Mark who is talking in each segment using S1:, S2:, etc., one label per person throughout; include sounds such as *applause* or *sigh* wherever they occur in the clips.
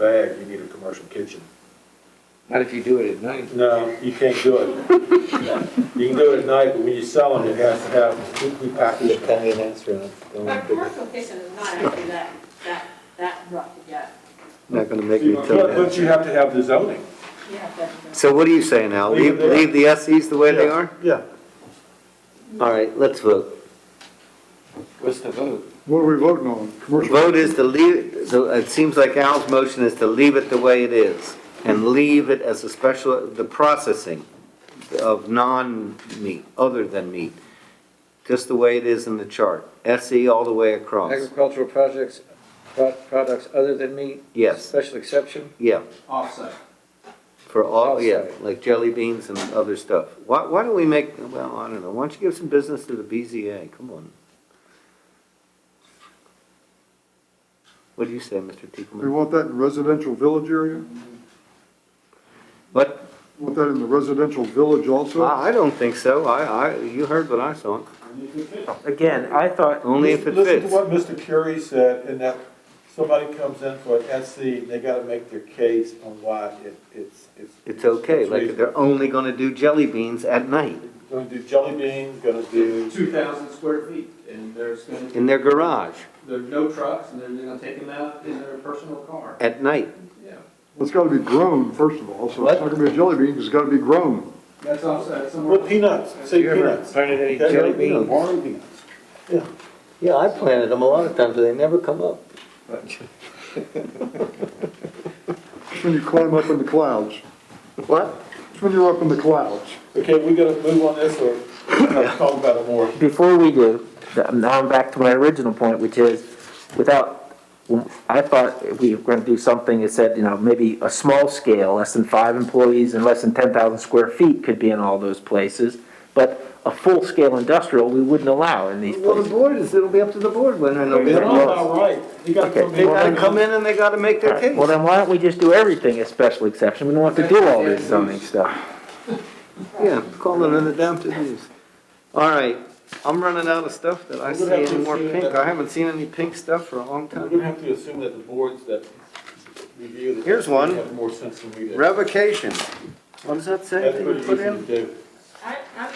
S1: bag, you need a commercial kitchen.
S2: Not if you do it at night.
S1: No, you can't do it. You can do it at night, but when you sell them, it has to have, we we package them.
S3: Italian restaurant, don't
S4: But
S3: want to-
S4: commercial kitchen is not actually that, that, that rough to get.
S3: not gonna make me tell
S1: But,
S3: that.
S1: but you have to have the zoning.
S4: You have to-
S3: So what are you saying now?
S1: Leave
S3: Leave,
S1: it there.
S3: leave the SEs the way they
S1: Yeah,
S3: are?
S1: Yeah.
S3: All right, let's vote.
S2: What's the vote?
S5: What are we voting on? Commercial?
S3: Vote is to leave, so it seems like Al's motion is to leave it the way it is and leave it as a special, the processing of non-meat, other than meat, just the way it is in the chart. SE all the way across.
S2: Agricultural projects, pro- products other than meat?
S3: Yes,
S2: Special exception?
S3: yeah.
S6: offsite.
S3: For all, yeah,
S2: Outside.
S3: like jelly beans and other stuff. Why, why don't we make, well, I don't know, why don't you give some business to the BZA, come on. What do you say, Mr.
S5: We
S3: Tippleman?
S5: want that in residential village area?
S3: What, Ah,
S5: Want that in the residential village also?
S3: I, I don't think so, I, I, you heard what I saw,
S2: Again, I thought.
S3: only if it
S1: Listen to
S3: fits.
S1: what Mr. Curie said, and that somebody comes in for an SC, they gotta make their case on why it, it's, it's.
S3: It's okay, like, they're only gonna do jelly beans at night,
S1: Gonna do jelly beans, gonna do,
S6: Two thousand square feet, and there's gonna,
S3: in their garage,
S6: there's no trucks, and they're gonna take them out in their personal car,
S3: at night.
S6: yeah.
S5: It's gotta be grown, first of all, so it's not gonna be a jelly bean, it's gotta be grown.
S6: That's offsite somewhere.
S1: well, peanuts, say
S2: You ever
S1: peanuts.
S2: planted any jelly beans?
S1: Warm peanuts.
S3: Yeah, I planted them a lot of times, but they never come up.
S5: It's when you climb up in the clouds.
S3: What?
S5: It's when you're up in the clouds.
S1: Okay, we gotta move on this,
S3: *coughs*
S1: or talk about it more.
S7: before we do, now I'm back to my original point, which is, without, I thought if we were gonna do something that said, you know, maybe a small scale, less than five employees and less than ten thousand square feet could be in all those places, but a full-scale industrial, we wouldn't allow in these
S3: Well, the
S7: places.
S3: board is, it'll be up to the board when I know.
S1: They're all about right. You gotta
S7: Okay.
S1: come
S3: They gotta
S1: in.
S3: come in and they gotta make
S7: All
S3: their
S7: right, Well,
S3: case.
S7: then why don't we just do everything as special exception? We don't have to do all this zoning stuff.
S3: Yeah, call it an adaptive use. All right, I'm running out of stuff that I
S1: We're
S3: see
S1: gonna have to
S3: any more
S1: assume
S3: pink.
S1: that-
S3: I haven't seen any pink stuff for a long
S1: We're
S3: time.
S1: gonna have to assume that the boards that review this.
S3: Here's one.
S1: Have more sense than we do.
S3: Revocation. What does that say?
S1: That's
S3: that
S1: pretty
S3: you
S1: easy
S3: put
S1: to
S3: in?
S1: do.
S4: I, I'm,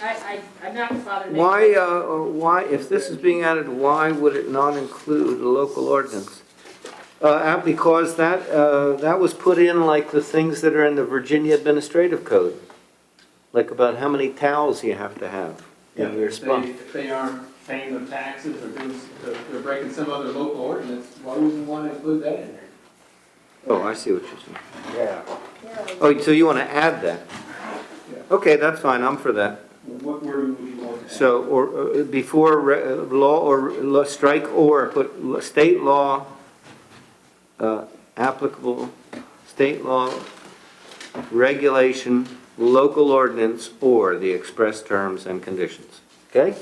S4: I, I, I'm not bothered. making-
S3: Why, uh, why, if this is being added, why would it not include a local ordinance? Uh, uh, because that, uh, that was put in like the things that are in the Virginia Administrative Code. Like about how many towels you have to have
S1: Yeah,
S3: in your
S6: If
S3: spa.
S6: they, if they aren't paying their taxes or doing, they're- they're breaking some other local ordinance, why would we wanna include that in there?
S3: Oh, I see what you're saying.
S1: Yeah.
S3: Oh, so you want to add that?
S6: Yeah.
S3: Okay, that's fine, I'm for that.
S6: What word would we want to add?
S3: So, or, uh, before re- uh, law or, law- strike or, put l- state law uh, applicable, state law, regulation, local ordinance, or the express terms and conditions. Okay?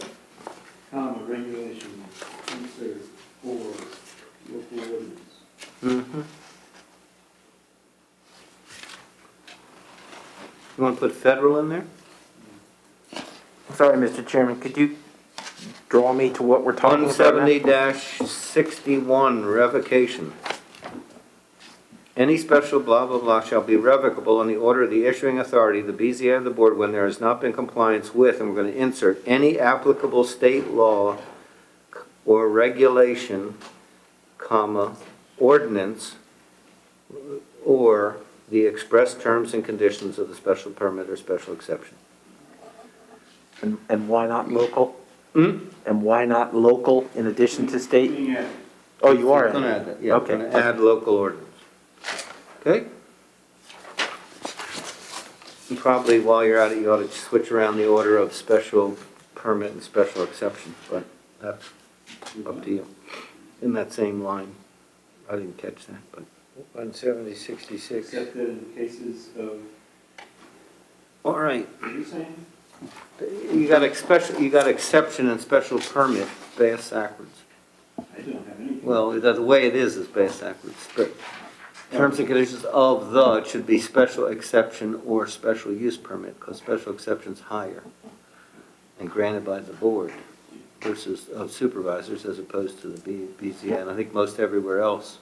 S6: Comma, regulation, consider, or local ordinance.
S3: Mm-hmm. You want to put federal in there?
S7: Sorry, Mr. Chairman, could you draw me to what we're talking about? now?
S3: 170-61, revocation. Any special blah, blah, blah shall be revocable on the order of the issuing authority, the BZA of the board, when there has not been compliance with, and we're going to insert, any applicable state law or regulation, comma, ordinance, or the express terms and conditions of the special permit or special exception.
S7: And, and why not local?
S3: Hmm?
S7: And why not local in addition to state?
S6: Looking at
S7: Oh, you are.
S3: Gonna add that, yeah, we're
S7: Okay.
S3: gonna add local ordinance. Okay? And Probably while you're at it, you ought to switch around the order of special permit and special exception, but that's up to you. In that same line, I didn't catch that, but.
S2: One seventy sixty-six.
S6: accepted in cases of,
S3: All right,
S6: what are you saying?
S3: you got special, you got exception and special permit, bass backwards.
S6: I don't have anything.
S3: Well, the the way it is is based backwards, but terms and conditions of the should be special exception or special use permit, because special exception's higher and granted by the board versus of supervisors as opposed to the B- BZA, and I think most everywhere else